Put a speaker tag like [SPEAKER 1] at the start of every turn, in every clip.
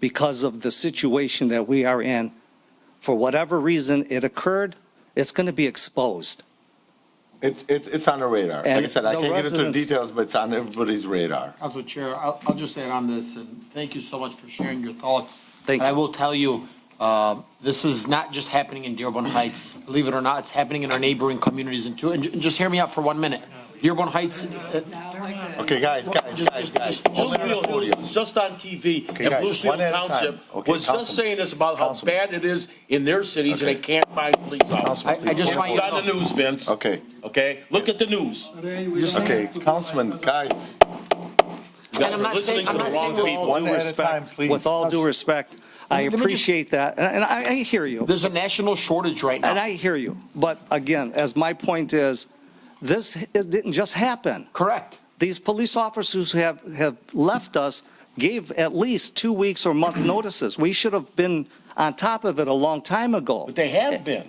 [SPEAKER 1] because of the situation that we are in. For whatever reason it occurred, it's going to be exposed.
[SPEAKER 2] It's, it's, it's on the radar. Like I
[SPEAKER 1] And
[SPEAKER 2] said, I
[SPEAKER 1] the
[SPEAKER 2] can't get into
[SPEAKER 1] residents-
[SPEAKER 2] details, but it's on everybody's radar.
[SPEAKER 3] Council Chair, I'll, I'll just add on this, and thank you so much for sharing your thoughts.
[SPEAKER 1] Thank
[SPEAKER 3] And I
[SPEAKER 1] you.
[SPEAKER 3] will tell you, uh, this is not just happening in Dearborn Heights. Believe it or not, it's happening in our neighboring communities and too. And ju- and just hear me out for one minute. Dearborn Heights, uh,
[SPEAKER 2] Okay, guys, guys,
[SPEAKER 3] Just-
[SPEAKER 2] guys,
[SPEAKER 3] just-
[SPEAKER 2] guys.
[SPEAKER 3] just-
[SPEAKER 2] Hold
[SPEAKER 4] Just
[SPEAKER 2] on the
[SPEAKER 4] real news,
[SPEAKER 2] podium.
[SPEAKER 4] was just on TV,
[SPEAKER 2] Okay,
[SPEAKER 4] and
[SPEAKER 2] guys,
[SPEAKER 4] Blue Seal
[SPEAKER 2] one at a time.
[SPEAKER 4] Township
[SPEAKER 2] Okay,
[SPEAKER 4] was just
[SPEAKER 2] Councilman.
[SPEAKER 4] saying this about how
[SPEAKER 2] Councilman.
[SPEAKER 4] bad it is in their cities, and
[SPEAKER 2] Okay.
[SPEAKER 4] they can't find police officers.
[SPEAKER 2] Councilman,
[SPEAKER 3] I- I just
[SPEAKER 2] please.
[SPEAKER 3] want you
[SPEAKER 4] It's on the news, Vince.
[SPEAKER 2] Okay,
[SPEAKER 4] Okay? Look at the news.
[SPEAKER 2] okay, Councilman, guys,
[SPEAKER 4] You guys
[SPEAKER 3] I'm
[SPEAKER 4] are
[SPEAKER 3] not saying-
[SPEAKER 4] listening to
[SPEAKER 3] I'm
[SPEAKER 4] the
[SPEAKER 3] not
[SPEAKER 4] wrong
[SPEAKER 3] saying-
[SPEAKER 4] people.
[SPEAKER 2] one at a time, please.
[SPEAKER 1] With all due respect, I
[SPEAKER 3] Let me just-
[SPEAKER 1] appreciate that, and and I I hear you.
[SPEAKER 3] there's a national shortage right
[SPEAKER 1] And
[SPEAKER 3] now.
[SPEAKER 1] I hear you. But again, as my point is, this is- didn't just happen.
[SPEAKER 3] Correct.
[SPEAKER 1] These police officers who have, have left us gave at least two weeks or month notices. We should have been on top of it a long time ago.
[SPEAKER 4] But they have been.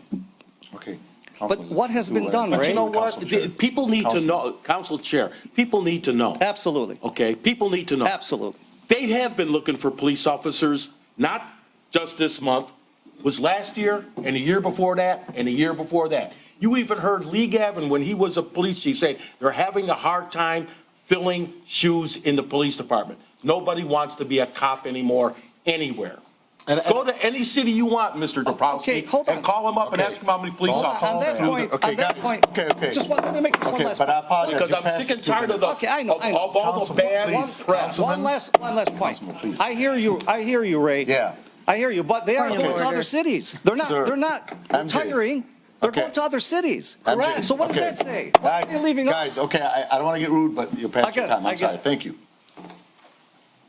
[SPEAKER 2] Okay.
[SPEAKER 1] But what has been done,
[SPEAKER 4] But
[SPEAKER 1] Ray?
[SPEAKER 4] you know what? The- People need to
[SPEAKER 2] Councilman.
[SPEAKER 4] know, Council Chair, people need to know,
[SPEAKER 1] Absolutely,
[SPEAKER 4] okay? People need to know.
[SPEAKER 1] absolutely.
[SPEAKER 4] They have been looking for police officers, not just this month, was last year and the year before that and the year before that. You even heard Lee Gavin, when he was a police chief, say they're having a hard time filling shoes in the police department. Nobody wants to be a cop anymore, anywhere.
[SPEAKER 3] And-
[SPEAKER 4] Go to any city you want, Mr.
[SPEAKER 1] Okay,
[SPEAKER 4] Dombrowski,
[SPEAKER 1] hold on.
[SPEAKER 4] and call him up and ask him how many police
[SPEAKER 2] Hold
[SPEAKER 1] On
[SPEAKER 4] officers.
[SPEAKER 1] that
[SPEAKER 2] Calm down.
[SPEAKER 1] point,
[SPEAKER 2] Okay,
[SPEAKER 1] on that
[SPEAKER 2] guys.
[SPEAKER 1] point,
[SPEAKER 2] Okay, okay.
[SPEAKER 1] just want, let me make this one
[SPEAKER 2] Okay,
[SPEAKER 1] last.
[SPEAKER 2] but I apologize.
[SPEAKER 4] Because I'm sick and tired of the,
[SPEAKER 1] Okay, I know,
[SPEAKER 4] of
[SPEAKER 1] I know.
[SPEAKER 4] of all the
[SPEAKER 2] Councilman,
[SPEAKER 4] bad
[SPEAKER 2] please.
[SPEAKER 4] press.
[SPEAKER 1] One last, one last point.
[SPEAKER 2] Councilman, please.
[SPEAKER 1] I hear you, I hear you, Ray.
[SPEAKER 2] Yeah.
[SPEAKER 1] I hear you, but they are
[SPEAKER 2] Point of
[SPEAKER 1] going to
[SPEAKER 2] order.
[SPEAKER 1] other cities. They're not,
[SPEAKER 2] Sir,
[SPEAKER 1] they're not
[SPEAKER 2] MJ.
[SPEAKER 1] retiring. They're
[SPEAKER 2] Okay.
[SPEAKER 1] going to other cities.
[SPEAKER 2] MJ,
[SPEAKER 1] Correct. So what does
[SPEAKER 2] okay.
[SPEAKER 1] that say? Why are they
[SPEAKER 2] Guys,
[SPEAKER 1] leaving
[SPEAKER 2] Guys,
[SPEAKER 1] us?
[SPEAKER 2] okay, I, I don't want to get rude, but you're
[SPEAKER 1] I
[SPEAKER 2] past
[SPEAKER 1] get
[SPEAKER 2] your
[SPEAKER 1] it,
[SPEAKER 2] time.
[SPEAKER 1] I
[SPEAKER 2] I'm
[SPEAKER 1] get
[SPEAKER 2] sorry.
[SPEAKER 1] it.
[SPEAKER 2] Thank you.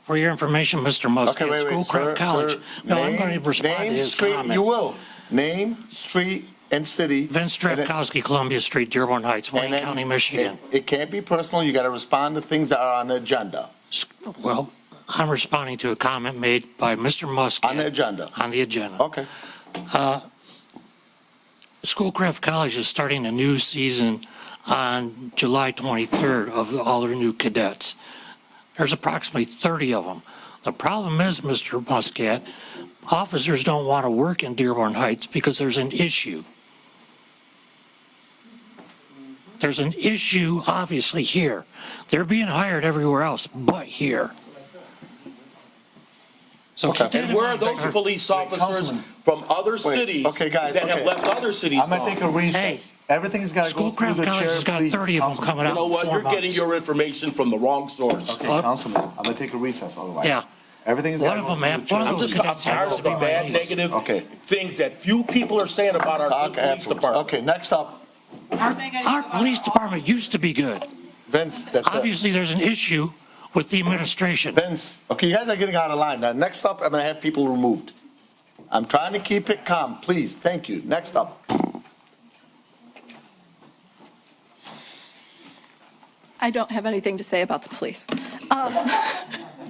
[SPEAKER 5] For your information, Mr. Muskie,
[SPEAKER 2] Okay, wait,
[SPEAKER 5] at
[SPEAKER 2] wait, sir,
[SPEAKER 5] Schoolcraft College.
[SPEAKER 2] sir.
[SPEAKER 5] No, I'm going
[SPEAKER 2] Name-
[SPEAKER 5] to respond to
[SPEAKER 2] name,
[SPEAKER 5] his
[SPEAKER 2] street- You
[SPEAKER 5] comment.
[SPEAKER 2] will. Name, street, and city.
[SPEAKER 5] Vince
[SPEAKER 2] And it-
[SPEAKER 5] Drapkowski, Columbia Street, Dearborn Heights,
[SPEAKER 2] and
[SPEAKER 5] Wayne
[SPEAKER 2] then
[SPEAKER 5] County, Michigan.
[SPEAKER 2] It it can't be personal. You got to respond to things that are on the agenda.
[SPEAKER 5] S- Well, I'm responding to a comment made by Mr. Muskie.
[SPEAKER 2] On the agenda.
[SPEAKER 5] On the agenda.
[SPEAKER 2] Okay.
[SPEAKER 5] Schoolcraft College is starting a new season on July 23rd of all their new cadets. There's approximately 30 of them. The problem is, Mr. Muscat, officers don't want to work in Dearborn Heights because there's an issue. There's an issue, obviously, here. They're being hired everywhere else but here. So keep that
[SPEAKER 4] And
[SPEAKER 5] in
[SPEAKER 4] where are
[SPEAKER 5] mind,
[SPEAKER 4] those
[SPEAKER 5] sir.
[SPEAKER 4] police officers
[SPEAKER 2] Councilman.
[SPEAKER 4] from other
[SPEAKER 2] Wait,
[SPEAKER 4] cities
[SPEAKER 2] okay, guys,
[SPEAKER 4] that have
[SPEAKER 2] okay.
[SPEAKER 4] left other cities
[SPEAKER 2] I'm gonna take a
[SPEAKER 4] gone?
[SPEAKER 2] recess. Everything's gotta go through
[SPEAKER 5] Schoolcraft
[SPEAKER 2] the
[SPEAKER 5] College
[SPEAKER 2] chair,
[SPEAKER 5] has got
[SPEAKER 2] please,
[SPEAKER 5] 30 of them
[SPEAKER 2] Councilman.
[SPEAKER 5] coming
[SPEAKER 4] You
[SPEAKER 5] out
[SPEAKER 4] know
[SPEAKER 5] in
[SPEAKER 4] what?
[SPEAKER 5] four
[SPEAKER 4] You're getting
[SPEAKER 5] months.
[SPEAKER 4] your information from the wrong source.
[SPEAKER 2] Okay,
[SPEAKER 5] Up.
[SPEAKER 2] Councilman, I'm gonna take a recess otherwise.
[SPEAKER 5] Yeah.
[SPEAKER 2] Everything's
[SPEAKER 5] One
[SPEAKER 2] gotta
[SPEAKER 5] of
[SPEAKER 2] go through
[SPEAKER 5] them,
[SPEAKER 2] the
[SPEAKER 5] man, one
[SPEAKER 2] chair.
[SPEAKER 4] I'm
[SPEAKER 5] of those
[SPEAKER 4] just, I'm
[SPEAKER 5] cadets
[SPEAKER 4] tired
[SPEAKER 5] happens
[SPEAKER 4] of
[SPEAKER 5] to
[SPEAKER 4] the
[SPEAKER 5] be my
[SPEAKER 4] bad,
[SPEAKER 5] niece.
[SPEAKER 4] negative
[SPEAKER 2] Okay.
[SPEAKER 4] things that few people are saying about our
[SPEAKER 2] Talk
[SPEAKER 4] good police
[SPEAKER 2] afterwards.
[SPEAKER 4] department.
[SPEAKER 2] Okay, next up,
[SPEAKER 5] Our police department used to be good.
[SPEAKER 2] Vince, that's it.
[SPEAKER 5] Obviously, there's an issue with the administration.
[SPEAKER 2] Vince, okay, you guys are getting out of line. Now, next up, I'm gonna have people removed. I'm trying to keep it calm, please, thank you. Next up.
[SPEAKER 6] I don't have anything to say about the police. Um,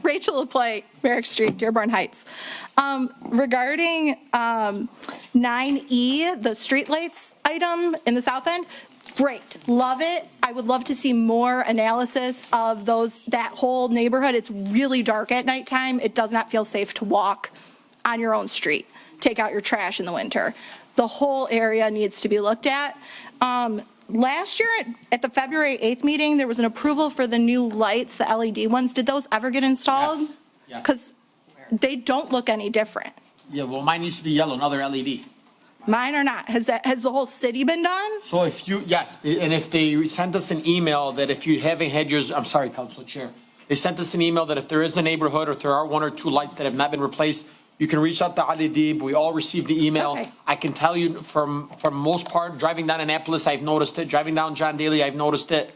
[SPEAKER 6] Rachel LaPlante, Merrick Street, Dearborn Heights. Um, Regarding um, 9E, the streetlights item in the south end, great, love it. I would love to see more analysis of those, that whole neighborhood. It's really dark at nighttime. It does not feel safe to walk on your own street, take out your trash in the winter. The whole area needs to be looked at. Um, Last year, at- at the February 8th meeting, there was an approval for the new lights, the LED ones. Did those ever get installed?
[SPEAKER 3] Yes.
[SPEAKER 6] Because they don't look any different.
[SPEAKER 3] Yeah, well, mine used to be yellow, another LED.
[SPEAKER 6] Mine are not. Has that, has the whole city been done?
[SPEAKER 3] So if you, yes, and if they sent us an email that if you haven't had yours, I'm sorry, Council Chair, they sent us an email that if there is a neighborhood or if there are one or two lights that have not been replaced, you can reach out to Ali Deeb. We all received the email.
[SPEAKER 6] Okay.
[SPEAKER 3] I can tell you from, from most part, driving down Annapolis, I've noticed it. Driving down John Daly, I've noticed it.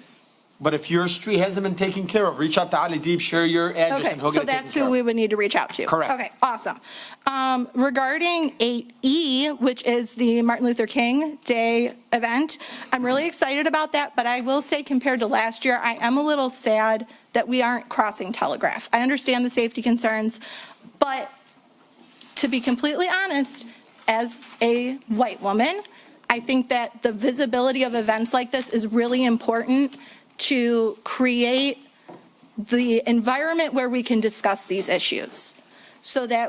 [SPEAKER 3] But if your street hasn't been taken care of, reach out to Ali Deeb, share your address
[SPEAKER 6] Okay,
[SPEAKER 3] and he'll
[SPEAKER 6] so
[SPEAKER 3] get it taken
[SPEAKER 6] that's
[SPEAKER 3] care
[SPEAKER 6] who we
[SPEAKER 3] of.
[SPEAKER 6] would need to reach out to?
[SPEAKER 3] Correct.
[SPEAKER 6] Okay, awesome. Um, Regarding 8E, which is the Martin Luther King Day event, I'm really excited about that, but I will say compared to last year, I am a little sad that we aren't crossing Telegraph. I understand the safety concerns, but to be completely honest, as a white woman, I think that the visibility of events like this is really important to create the environment where we can discuss these issues so that